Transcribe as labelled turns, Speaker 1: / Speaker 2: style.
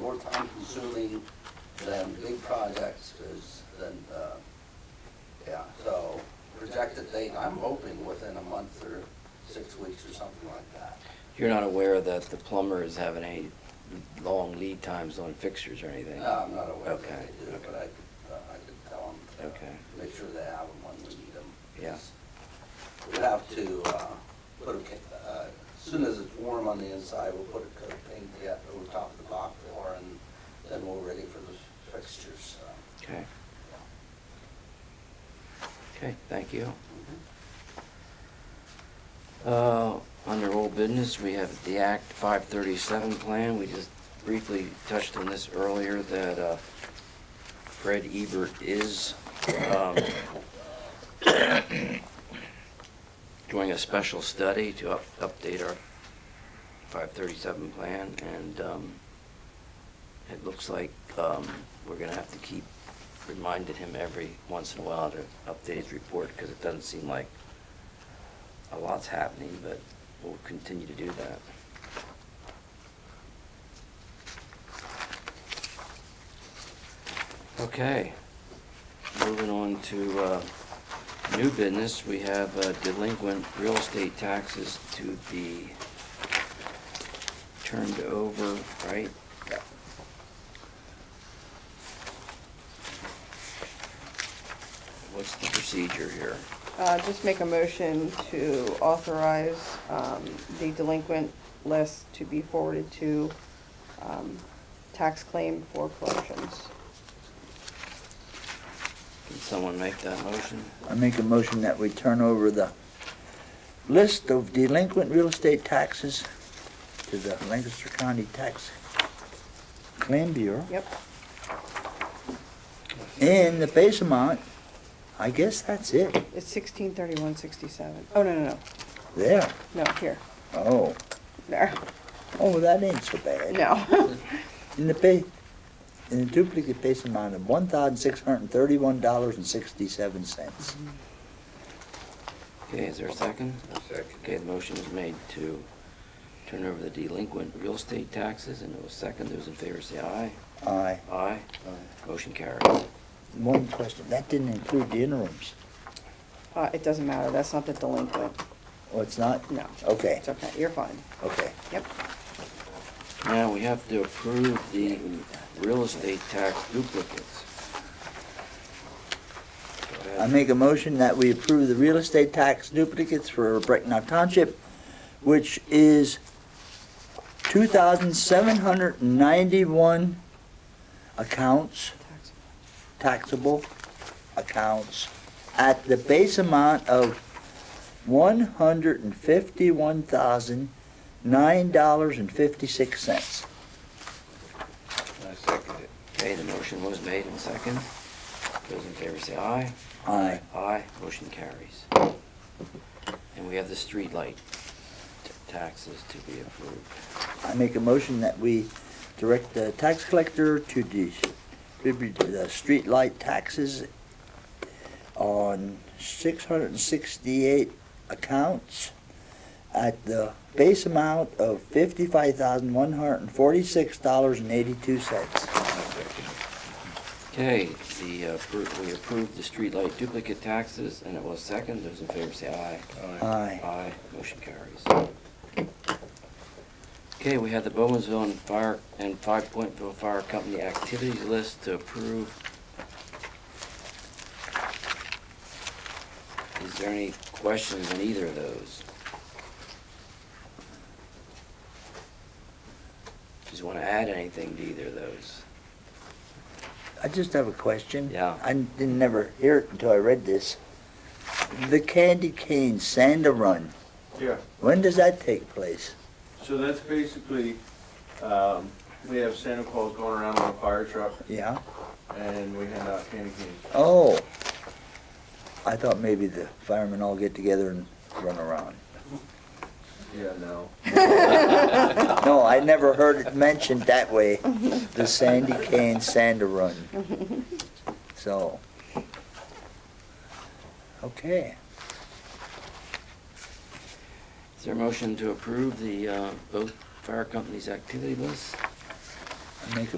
Speaker 1: more time consuming than big projects is, than, uh, yeah, so projected date, I'm hoping within a month or six weeks or something like that.
Speaker 2: You're not aware that the plumber is having any long lead times on fixtures or anything?
Speaker 1: No, I'm not aware
Speaker 2: Okay,
Speaker 1: that they do,
Speaker 2: okay.
Speaker 1: but I could, uh, I could tell them.
Speaker 2: Okay.
Speaker 1: Make sure they have them when we need them.
Speaker 2: Yeah.
Speaker 1: We'd have to, uh, put a, ca- uh, as soon as it's warm on the inside, we'll put a coat of paint yet over top of the dock floor and then we're ready for the fixtures, so.
Speaker 2: Okay, okay, thank you.
Speaker 1: Mhm.
Speaker 2: Uh, Under old business, we have the Act 537 plan. We just briefly touched on this earlier, that uh, Fred Ebert is um, doing a special study to up- update our 537 plan, and um, it looks like um, we're going to have to keep reminding him every once in a while to update his report, because it doesn't seem like a lot's happening, but we'll continue to do that. Okay, moving on to uh, new business, we have uh, delinquent real estate taxes to be turned over, right? What's the procedure here?
Speaker 3: Uh, Just make a motion to authorize um, the delinquent list to be forwarded to um, tax claim for collections.
Speaker 2: Can someone make that motion?
Speaker 4: I make a motion that we turn over the list of delinquent real estate taxes to the Lancaster County Tax Claim Bureau.
Speaker 3: Yep,
Speaker 4: And the base amount, I guess that's it.
Speaker 3: it's sixteen thirty-one sixty-seven. Oh, no, no, no,
Speaker 4: There.
Speaker 3: no, here,
Speaker 4: Oh,
Speaker 3: there,
Speaker 4: oh, that ain't so bad.
Speaker 3: no.
Speaker 4: In the pay, in the duplicate base amount of one thousand six hundred and thirty-one dollars and sixty-seven cents.
Speaker 2: Okay, is there a second? Okay, the motion is made to turn over the delinquent real estate taxes, and it was second, those in favor say aye.
Speaker 3: Mm-hmm.
Speaker 4: Aye.
Speaker 2: Aye. Motion carries.
Speaker 4: One question, that didn't include the interims.
Speaker 3: Uh, It doesn't matter, that's not the delinquent,
Speaker 4: Oh, it's not?
Speaker 3: no.
Speaker 4: Okay,
Speaker 3: It's okay, you're fine,
Speaker 4: okay.
Speaker 3: yep.
Speaker 2: Now, we have to approve the real estate tax duplicates. Go ahead.
Speaker 4: I make a motion that we approve the real estate tax duplicates for Brecknock Township, which is two thousand seven hundred and ninety-one accounts,
Speaker 3: Tax-
Speaker 4: taxable accounts, at the base amount of one hundred and fifty-one thousand, nine dollars and fifty-six cents.
Speaker 5: I second it.
Speaker 2: Okay, the motion was made and second. Those in favor say aye.
Speaker 4: Aye.
Speaker 2: Aye, motion carries. And we have the streetlight t- taxes to be approved.
Speaker 4: I make a motion that we direct the tax collector to distribute the streetlight taxes on six hundred and sixty-eight accounts at the base amount of fifty-five thousand, one hundred and forty-six dollars and eighty-two cents.
Speaker 5: I second it.
Speaker 2: Okay, the, uh, appro- we approved the streetlight duplicate taxes, and it was second. Those in favor say aye.
Speaker 4: Aye.
Speaker 2: Aye, motion carries. Okay, we had the Bowmansville and Fire, and Five Pointville Fire Company activities list to approve. Is there any questions on either of those? Just want to add anything to either of those?
Speaker 4: I just have a question.
Speaker 2: Yeah.
Speaker 4: I didn't never hear it until I read this. The Candy Cane Santa Run,
Speaker 6: Yeah,
Speaker 4: when does that take place?
Speaker 6: so that's basically, um, we have Santa Claus going around on a fire truck
Speaker 4: Yeah?
Speaker 6: and we hand out candy canes.
Speaker 4: Oh. I thought maybe the firemen all get together and run around.
Speaker 6: Yeah, no.
Speaker 4: No, I never heard it mentioned that way, the Sandy Kane Sander Run. So. Okay,
Speaker 2: Is there a motion to approve the, uh, both fire companies' activity list?
Speaker 4: I make a